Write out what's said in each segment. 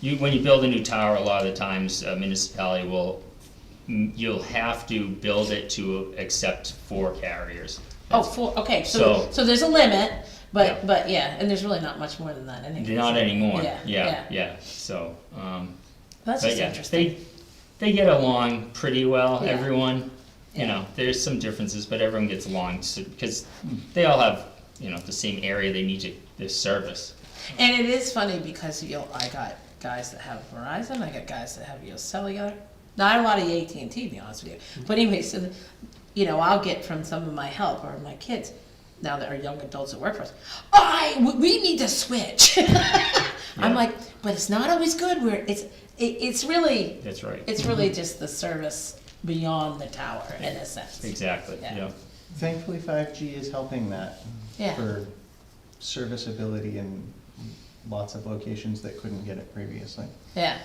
you, when you build a new tower, a lot of the times a municipality will, m- you'll have to build it to accept four carriers. Oh, four, okay, so, So- so there's a limit, Yeah. but, but, yeah, and there's really not much more than that, I think. Not anymore, Yeah, yeah, yeah. yeah, so, um, That's but just yeah, interesting. they, they get along pretty well, Yeah. everyone. You Yeah. know, there's some differences, but everyone gets along, so, because they all have, you know, the same area they need to, their service. And it is funny because you'll, I got guys that have Verizon, I got guys that have your cellular, not a lot of AT&T, to be honest with Mm-hmm. you. But anyway, so, the- you know, I'll get from some of my help or my kids, now that are young adults that work for us, I, we- we need to switch. Yeah. I'm like, but it's not always good, where it's, it, it's really, That's right, It's really just the service beyond the tower in a sense. exactly, Yeah. Oh, yeah. Thankfully, five G is helping that Yeah, for serviceability in lots of locations that couldn't get it previously. yeah,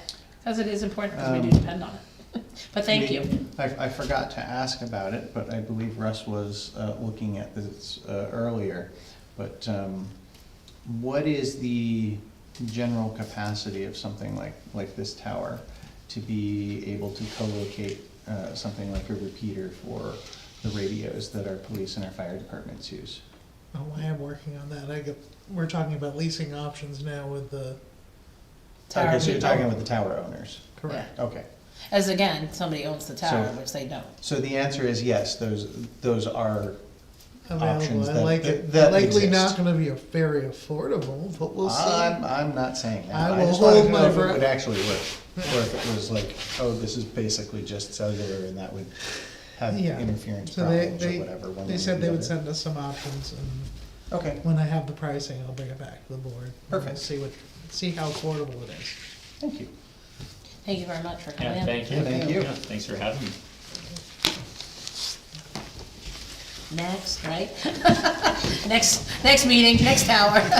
because it is important because we Um, do depend on it. But thank you. I, I forgot to ask about it, but I believe Russ was, uh, looking at this, uh, earlier. But, um, what is the general capacity of something like, like this tower to be able to co-locate, uh, something like a repeater for the radios that our police and our fire departments use? Oh, I am working on that. I get, we're talking about leasing options now with the, Tower Okay, so you're people. talking with the tower owners, correct. okay. As again, somebody owns the tower, So- which they don't. So the answer is yes, those, those are, Options Available. I that- like that- it. that Likely exist. not gonna be a very affordable, but we'll I'm, see. I'm not saying that. I I will just wanted to hold my know if it breath. would actually work, or if it was like, oh, this is basically just cellular and that would have Yeah. interference So they, problems or they, whatever. one way they or said the they would other. send us some options and Okay, when I have the pricing, I'll bring it back to the board. and we'll Perfect. See what, see how affordable it is. thank you. Thank you very much for coming Yeah, in. thank you. Thank you. Yeah, Thanks for having me. Next, right? Next, next meeting, next tower.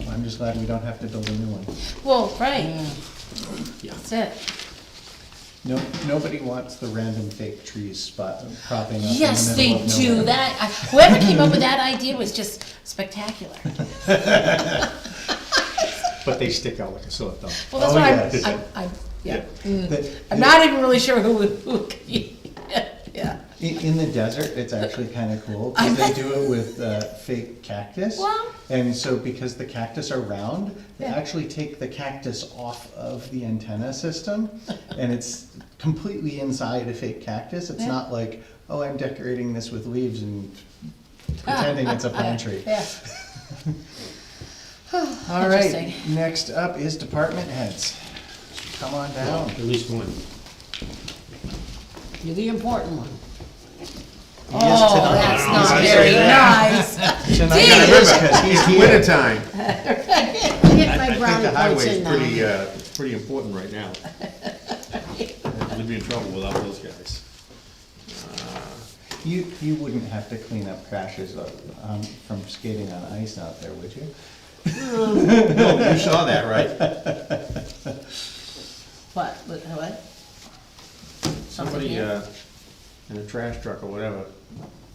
Well, I'm just glad we don't have to build a new one. Well, right. Mm. Yeah. That's it. No, nobody wants the random fake trees spot propping up in the middle Yes, they of do. nowhere. That, I- whoever came up with that idea was just spectacular. But they stick out like a sore thumb. Well, that's Oh, why yes. I'm- I'm, I'm, yeah. Mm. The- I'm not even really sure who, who, yeah. In, in the desert, it's actually kind of cool because they do it with uh, fake cactus. Wow. And so, because the cactus are round, they Yeah. actually take the cactus off of the antenna system, and it's completely inside a fake cactus. It's Yeah. not like, oh, I'm decorating this with leaves and pretending it's a pine tree. Yeah. All right. Interesting. Next up is department heads. Come on down. At least one. You're the important one. yes, Oh, tonight. that's not very nice. Tonight, because he's It's here. wintertime. Get I my think the brownie highway points in is pretty, now. uh, pretty important right now. We'd be in trouble without those guys. You, you wouldn't have to clean up crashes of, um, from skating on ice out there, would you? No, you saw that, right? What, what, what? Somebody, uh, in a trash truck or whatever,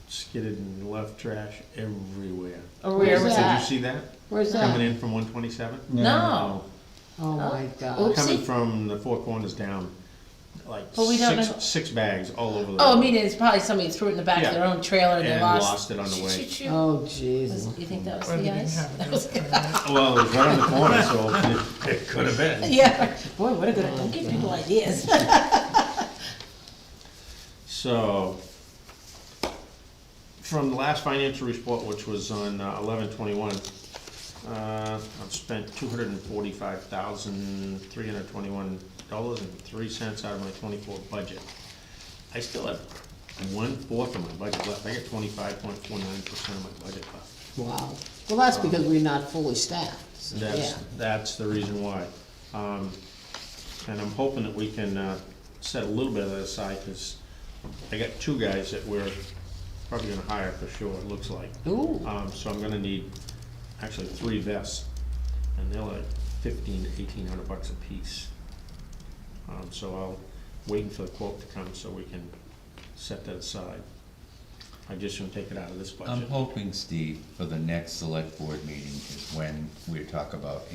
skidded and left trash everywhere. Oh, where Where's was Did you that? see that? Where's Coming that? in from one twenty-seven? No, Oh, my Oops. God. Coming Oopsie. from the four corners down, like But we don't know- six, six bags all over the. oh, I mean, it's probably somebody threw it in the back of their own trailer and they And lost. lost it on the way. Shoot, shoot, shoot. Oh, Was- Jesus. You think that was Or they the didn't ice? have it. Well, it was right on the corner, so it could have been. Yeah, boy, what a good, don't give people ideas. So, from the last financial report, which was on uh, eleven twenty-one, uh, I've spent two hundred and forty-five thousand, three hundred twenty-one dollars and three cents out of my twenty-four budget. I still have one-fourth of my budget left, I got twenty-five point four nine percent of my budget left. Wow. Well, that's because we're not fully staffed. so, That's, yeah. that's the reason why. Um, And I'm hoping that we can uh, set a little bit of that aside, because I got two guys that we're probably gonna hire for sure, it looks like. Ooh. Um, So I'm gonna need, actually, three vests, and they're like fifteen to eighteen hundred bucks a piece. Um, So I'll, waiting for the quote to come so we can set that aside. I just gonna take it out of this budget. I'm hoping, Steve, for the next select board meeting is when we talk about